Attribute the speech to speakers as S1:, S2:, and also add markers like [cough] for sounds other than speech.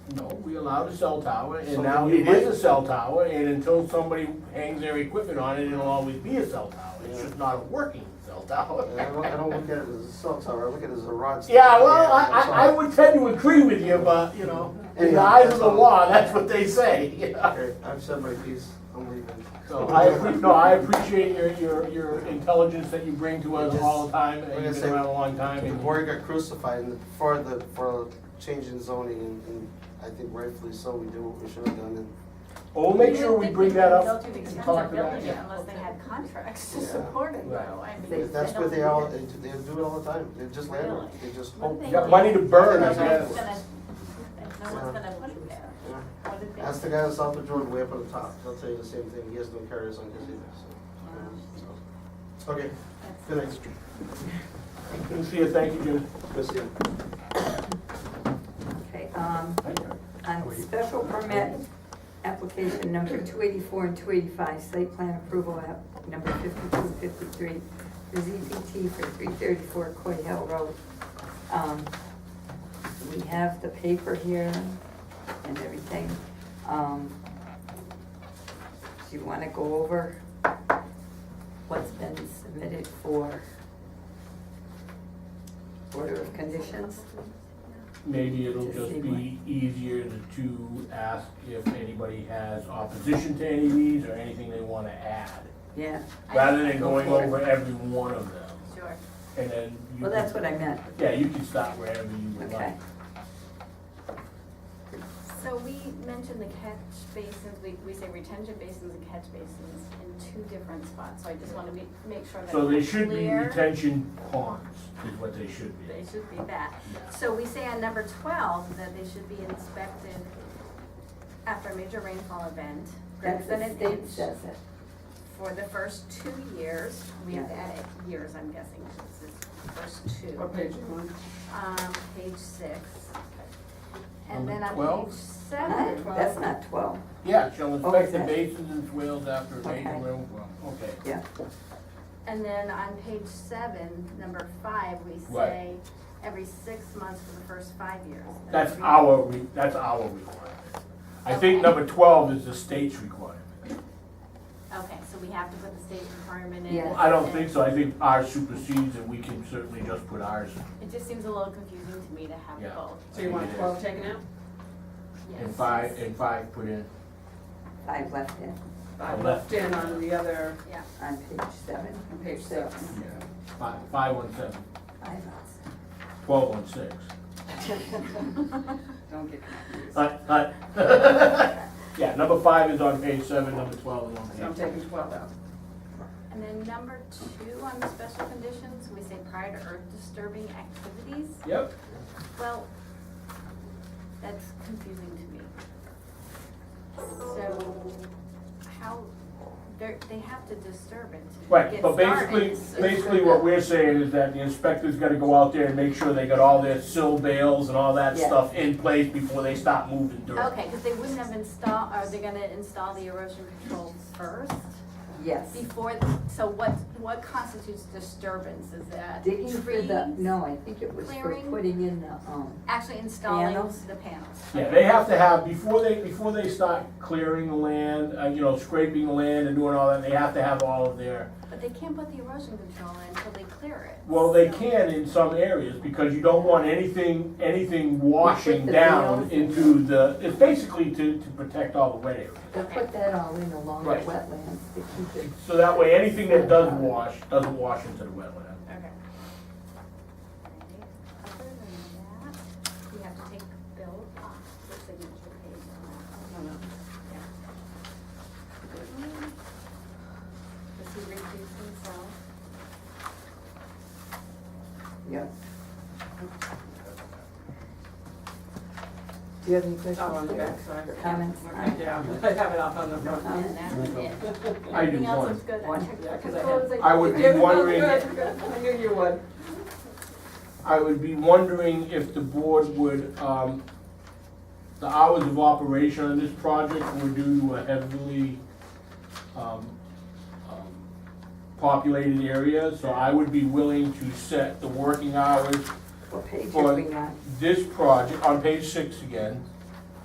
S1: we allowed a cell tower, and
S2: Something
S1: now
S2: you
S1: it is
S2: did.
S1: a cell tower, and until somebody hangs their equipment on it, it'll always be a cell tower. It's
S2: Yeah.
S1: just not a working cell tower.
S2: I don't, I don't look at it as a cell tower, I look at it as a rod.
S1: [laughs]
S2: sticking
S1: Yeah,
S2: out of the
S1: well,
S2: air,
S1: I,
S2: that's
S1: I, I
S2: all.
S1: would tend to agree with you, but, you know, in the
S2: Yeah,
S1: eyes of
S2: that's
S1: the
S2: all.
S1: law, that's what they say, [laughs] you know.
S2: Okay, I've said my piece, I'm leaving.
S1: So I, appre- no, I appreciate your, your, your intelligence that you bring to us all the time,
S2: Like I
S1: and you've
S2: say,
S1: been around a long time.
S2: The
S1: and-
S2: board got crucified in the, for the, for changing zoning, and, and I think rightfully so, we did what we should have done, and
S1: Well, we'll make
S3: You
S1: sure
S3: would
S1: we
S3: think
S1: bring
S3: they
S1: that
S3: would
S1: up
S3: go to the
S1: and
S3: expense
S1: talk about
S3: of building
S1: it.
S3: it Unless they had contracts to
S2: Yeah.
S3: support it
S1: Right.
S3: though, I mean.
S2: If that's what
S3: don't
S2: they all,
S3: do
S2: they,
S3: that.
S2: they do it all the time, they just land, on it. they just
S3: What
S2: hope.
S3: do
S1: You
S3: they
S1: got
S3: do?
S1: money to burn, I
S3: No one's
S1: guess.
S3: gonna, no one's gonna put it there.
S2: Yeah.
S3: What did they?
S2: Ask the guy in South of Jordan way up at the top, he'll tell you the same thing, he has no carriers on his either, so. Okay, good night,
S1: Good to see you, thank you, Jim.
S2: Good to see you.
S4: Okay, um, on special permit, application number two eighty-four and two eighty-five, site plan approval app number fifty-two, fifty-three, the ZPT for three thirty-four Coy Hill Road. Um, we have the paper here and everything. Um, do you wanna go over what's been submitted for order of conditions?
S1: Maybe it'll
S4: Just
S1: just
S4: see
S1: be easier to- to ask if anybody has opposition to any of these or anything they wanna add,
S4: Yeah. I-
S1: rather
S4: I
S1: than
S4: go
S1: going
S4: for it.
S1: over every one of them.
S3: Sure.
S1: And then you.
S4: Well, that's
S1: can-
S4: what I meant.
S1: Yeah, you can stop wherever you would
S4: Okay.
S1: like.
S3: So we mentioned the catch basins, we, we say retention basins and catch basins in two different spots, so I just wanna be, make sure that.
S1: So they
S3: it's
S1: should be
S3: clear.
S1: retention ponds, is what they should be.
S3: They should be that.
S1: Yeah.
S3: So we say on number twelve that they should be inspected after a major rainfall event,
S4: That's
S3: greater than
S4: the
S3: an
S4: state
S3: inch
S4: says it.
S3: for the first two years. We have to
S4: Yeah.
S3: add it years, I'm guessing, since it's first two.
S2: What page you on?
S3: Um, page six. And
S1: Number
S3: then on
S1: 12?
S3: page
S4: Huh?
S3: seven.
S4: That's not twelve,
S1: Yeah, shall
S4: Oh,
S1: inspect
S4: is
S1: the
S4: it?
S1: basins and swales after a major
S4: Okay.
S1: rainfall, okay.
S4: yeah.
S3: And then on page seven, number five, we
S1: Right.
S3: say every six months for the first five years.
S1: That's our, re- that's our requirement. I think
S3: Okay.
S1: number twelve is the state's requirement.
S3: Okay, so we have to put the state requirement in.
S4: Yeah.
S1: I don't think so, I think ours supersedes and we can certainly just put ours
S3: It just seems a little confusing to me to have
S1: Yeah.
S3: both.
S5: So you want twelve taken out?
S3: Yes.
S1: and five, and five put in.
S4: Five left in
S5: I
S1: Left.
S5: left in on the other,
S3: Yeah,
S4: on page seven,
S5: on page six.
S1: Five, five on seven,
S4: five left.
S1: twelve on six.
S5: Don't get confused.
S1: Hut, hut. [laughs] Yeah, number five is on page seven, number twelve is on
S5: So I'm
S1: page.
S5: taking twelve out.
S3: and then number two on the special conditions, we say prior to earth disturbing activities.
S1: Yep.
S3: Well, that's confusing to me. So, how, they're, they have to disturb it to
S1: Right,
S3: get
S1: but basically,
S3: started, so-
S1: basically what we're saying is that the inspector's gotta go out there and make sure they got all their sill bales and all that
S4: Yeah.
S1: stuff in place before they stop moving dirt.
S3: Okay, because they wouldn't have installed, are they gonna install the erosion controls first?
S4: Yes.
S3: Before, so what, what constitutes disturbance, is that
S4: Digging for the,
S3: trees?
S4: no, I think it was for
S3: clearing?
S4: putting in the, um,
S3: Actually installing
S4: Panels?
S3: the panels.
S1: Yeah, they have to have, before they, before they start clearing the land, uh, you know, scraping the land and doing all that, they have to have all of their,
S3: But they can't put the erosion control in until they clear it.
S1: well, they
S3: so-
S1: can in some areas, because you don't want anything, anything washing
S4: the
S1: down
S4: bales in.
S1: into the, it's basically to, to protect all the wet areas.
S4: they put that all in along the
S1: Right.
S4: wetlands to keep it.
S1: So that way, anything that does wash, doesn't wash into the wetland.
S3: Okay. Other than that, we have to take Bill off the signature page on that. Does he recuse himself?
S4: Yep. Do you have any
S5: It's
S4: questions?
S5: up on the
S4: Derek?
S5: back side.
S4: Your comments?
S5: Okay, Yeah, I have it up on the front.
S4: Um,
S3: And that was it.
S1: I do
S3: Everything else
S1: one.
S3: is good.
S4: One.
S3: checked
S5: Yeah, 'cause I
S3: the
S5: had-
S3: codes,
S1: I would
S3: checked
S1: be
S5: Yeah,
S3: everything.
S5: no,
S1: wondering-
S5: Oh, good, good. I knew you would.
S1: I would be wondering if the board would, um, the hours of operation on this project were due to a heavily, um, um, populated area, so I would be willing to set the working hours
S4: What page
S1: For-
S4: are we on?
S1: this project, on page six again,